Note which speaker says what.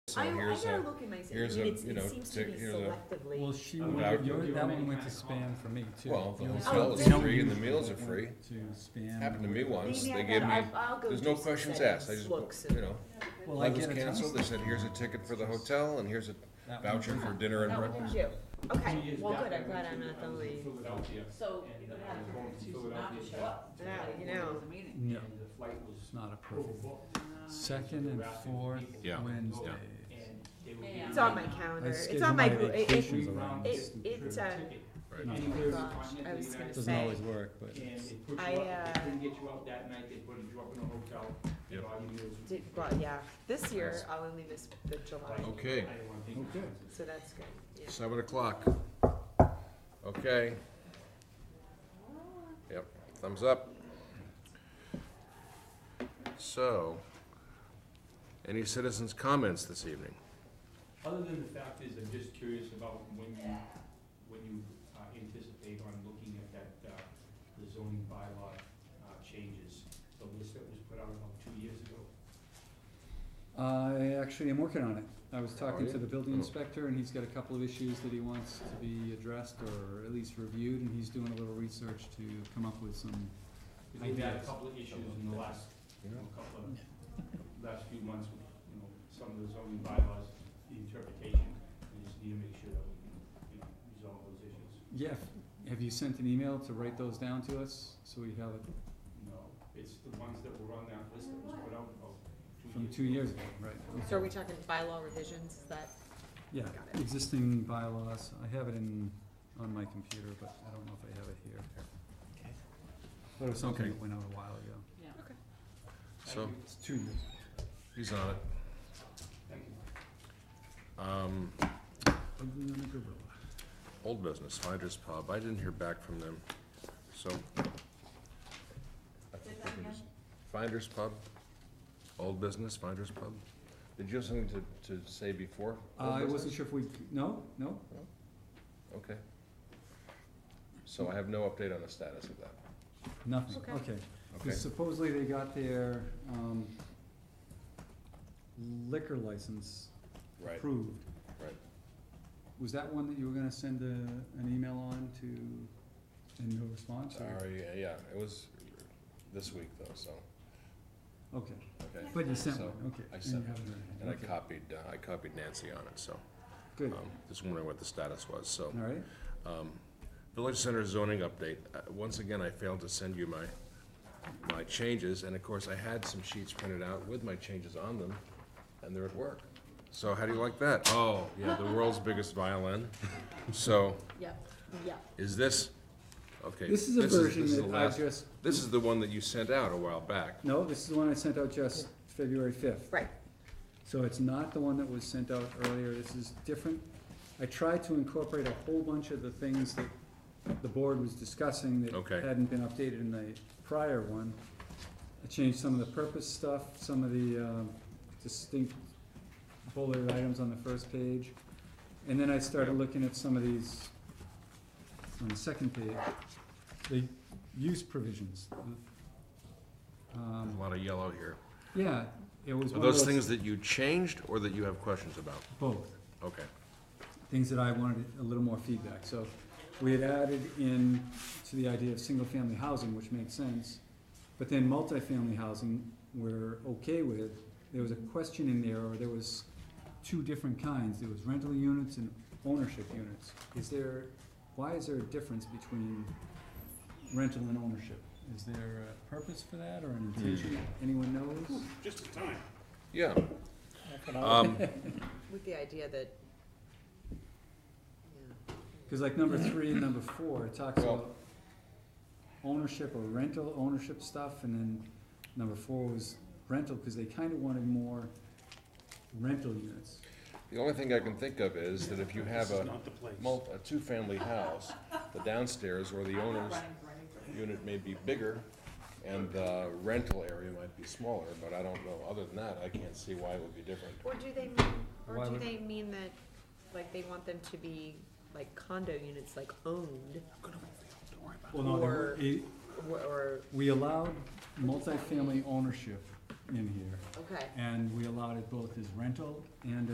Speaker 1: So
Speaker 2: I, I
Speaker 1: here's
Speaker 2: gotta
Speaker 1: a,
Speaker 2: look in my, se- I
Speaker 1: here's
Speaker 2: mean,
Speaker 1: a,
Speaker 2: it's-
Speaker 1: you know,
Speaker 2: it seems to
Speaker 1: tick-
Speaker 2: be
Speaker 1: here's a-
Speaker 2: selectively.
Speaker 3: Well, she,
Speaker 1: I'm
Speaker 3: went-
Speaker 1: out.
Speaker 3: your- that one went to spam for me too.
Speaker 1: Well, the
Speaker 3: Yours
Speaker 1: hotel
Speaker 3: went-
Speaker 2: is
Speaker 3: yours
Speaker 1: free and the
Speaker 3: went
Speaker 1: meals are
Speaker 3: to
Speaker 1: free.
Speaker 3: spam.
Speaker 1: happened to me once,
Speaker 2: Maybe I
Speaker 1: they gave
Speaker 2: gotta,
Speaker 1: me,
Speaker 2: I'll, I'll go
Speaker 1: there's
Speaker 2: do
Speaker 1: no
Speaker 2: some
Speaker 1: questions
Speaker 2: settings,
Speaker 1: asked, I just,
Speaker 2: looks
Speaker 1: you
Speaker 2: and-
Speaker 1: know.
Speaker 3: Well, I
Speaker 1: I was
Speaker 3: get a ton
Speaker 1: canceled,
Speaker 3: of
Speaker 1: they said, here's a ticket for the hotel and here's a
Speaker 3: that one
Speaker 1: voucher
Speaker 3: too.
Speaker 1: for dinner and
Speaker 2: That one was
Speaker 1: breakfast.
Speaker 2: you. Okay,
Speaker 4: She is
Speaker 2: well,
Speaker 4: back
Speaker 2: good, I'm
Speaker 4: in
Speaker 2: glad I'm not the lead.
Speaker 4: Philadelphia.
Speaker 5: So
Speaker 4: And,
Speaker 5: you
Speaker 4: uh,
Speaker 5: would have to
Speaker 4: going to
Speaker 5: choose not to
Speaker 4: Philadelphia
Speaker 5: show up.
Speaker 2: Yeah, you
Speaker 5: There
Speaker 2: know.
Speaker 5: was a meeting.
Speaker 3: No,
Speaker 4: And the flight was
Speaker 3: it's not approved.
Speaker 4: overbooked
Speaker 3: Second and fourth
Speaker 1: Yeah,
Speaker 3: Wednesdays.
Speaker 4: and they were.
Speaker 5: Yeah.
Speaker 2: It's on my
Speaker 4: giving
Speaker 2: calendar. It's
Speaker 3: schedule
Speaker 2: on my,
Speaker 3: my
Speaker 2: gro- it, it,
Speaker 3: vacations around
Speaker 2: it-
Speaker 3: stupid
Speaker 2: it,
Speaker 3: trips.
Speaker 2: uh,
Speaker 4: ticket
Speaker 1: Oh
Speaker 3: No,
Speaker 4: anywhere in the
Speaker 2: Gosh,
Speaker 4: continent
Speaker 2: I
Speaker 4: of the
Speaker 2: was
Speaker 4: United
Speaker 2: gonna
Speaker 3: Doesn't
Speaker 2: say.
Speaker 3: always work, but
Speaker 4: And
Speaker 3: it's-
Speaker 4: they put
Speaker 2: I,
Speaker 4: you up, if
Speaker 2: uh,
Speaker 4: they couldn't get you out that night, they put you up in a hotel, and
Speaker 1: Yep.
Speaker 4: all you do is.
Speaker 2: did, well, yeah, this year I'll only miss the July,
Speaker 1: Okay,
Speaker 4: I didn't wanna think of it.
Speaker 2: so that's good, yeah.
Speaker 1: seven o'clock. Okay. Yep, thumbs up. So, any citizens' comments this evening?
Speaker 4: Other than the fact is, I'm just curious about when you, when you uh, anticipate on looking at that, uh, the zoning bylaw uh, changes, the list that was put out about two years ago.
Speaker 3: I actually am working on it. I was talking to the building
Speaker 1: Oh.
Speaker 3: inspector and he's got a couple of issues that he wants to be addressed or at least reviewed and he's doing a little research to come up with some,
Speaker 4: Because we've had a
Speaker 3: Ideas.
Speaker 4: couple of issues in the last, you know, couple of, last few months, with, you know, some of the zoning bylaws, the interpretation. We just need to make sure that we can, you know, resolve those issues.
Speaker 3: yeah, have you sent an email to write those down to us? So we have it
Speaker 4: No, it's the ones that were on that list that was put out about two years.
Speaker 3: from two years ago, right?
Speaker 2: So are we talking bylaw revisions, is that,
Speaker 3: Yeah,
Speaker 2: Got it.
Speaker 3: existing bylaws, I have it in, on my computer, but I don't know if I have it here. But it was something
Speaker 1: Okay.
Speaker 3: that went out a while ago.
Speaker 5: Yeah.
Speaker 1: So,
Speaker 3: It's two years.
Speaker 1: he's on it.
Speaker 4: Thank you.
Speaker 1: Um,
Speaker 3: Ugly on a gorilla.
Speaker 1: Old business, Finders Pub, I didn't hear back from them, so. I think we can just- Finders Pub, old business, Finders Pub. Did you have something to, to say before? old
Speaker 3: I
Speaker 1: business?
Speaker 3: Uh, wasn't sure if we, no, no,
Speaker 1: Okay. So I have no update on the status of that.
Speaker 3: nothing,
Speaker 2: Okay.
Speaker 3: okay. 'Cause
Speaker 1: Okay,
Speaker 3: Supposedly they got their, um, liquor license
Speaker 1: right,
Speaker 3: approved.
Speaker 1: right.
Speaker 3: Was that one that you were gonna send a, an email on to, and no response, or-
Speaker 1: Sorry, yeah, yeah, it was this week though, so,
Speaker 3: Okay,
Speaker 1: okay.
Speaker 3: but you sent
Speaker 1: So,
Speaker 3: one, okay.
Speaker 1: I
Speaker 3: and
Speaker 1: sent
Speaker 3: you haven't heard anything,
Speaker 1: And I
Speaker 3: okay.
Speaker 1: copied, uh, I copied Nancy on it, so,
Speaker 3: Good,
Speaker 1: um, just wondering what the status was, so.
Speaker 3: all right.
Speaker 1: Um, Village Center zoning update, Uh, once again, I failed to send you my, my changes, and of course, I had some sheets printed out with my changes on them, and they're at work. So how do you like that? Oh, yeah, the world's biggest violin, so,
Speaker 2: yep, yep.
Speaker 1: is this, okay.
Speaker 3: This is a version
Speaker 1: this is the
Speaker 3: that I
Speaker 1: last-
Speaker 3: just,
Speaker 1: This is the one that you sent out a while back,
Speaker 3: no, this is the one I sent out just February fifth.
Speaker 2: Right,
Speaker 3: So it's not the one that was sent out earlier, this is different. I tried to incorporate a whole bunch of the things that the board was discussing that
Speaker 1: Okay.
Speaker 3: hadn't been updated in the prior one. I changed some of the purpose stuff, some of the um, distinct bullet items on the first page. And then I started looking at some of these on the second page, the use provisions.
Speaker 1: a
Speaker 3: Um,
Speaker 1: lot of yellow here.
Speaker 3: Yeah, it was
Speaker 1: Are
Speaker 3: one of
Speaker 1: those
Speaker 3: those,
Speaker 1: things that you changed, or that you have questions about?
Speaker 3: both.
Speaker 1: Okay,
Speaker 3: things that I wanted a little more feedback. So we had added in to the idea of single-family housing, which makes sense. But then multifamily housing, we're okay with. There was a question in there, or there was two different kinds. There was rental units and ownership units. Is there, why is there a difference between rental and ownership? Is there a purpose for that or an intention? Anyone knows?
Speaker 6: Just in time.
Speaker 1: yeah. Um,
Speaker 2: with the idea that, yeah.
Speaker 3: Cause like number three and number four, it talks
Speaker 1: Well-
Speaker 3: about ownership or rental ownership stuff, and then number four was rental, cause they kinda wanted more rental units.
Speaker 1: The only thing I can think of is that if you have
Speaker 6: This is
Speaker 1: a
Speaker 6: not the place.
Speaker 1: mul- a two-family house, the downstairs or the
Speaker 5: Running,
Speaker 1: owner's
Speaker 5: running, running.
Speaker 1: unit may be bigger, and the rental area might be smaller, but I don't know, other than that, I can't see why it would be different.
Speaker 2: Or do they mean,
Speaker 3: Why
Speaker 2: or do
Speaker 3: would-
Speaker 2: they mean that, like, they want them to be, like, condo units, like, owned?
Speaker 3: Well, no, they were-
Speaker 2: Or-
Speaker 3: it-
Speaker 2: Or, or,
Speaker 3: we allowed multifamily ownership in here,
Speaker 2: okay.
Speaker 3: and we allowed it both as rental and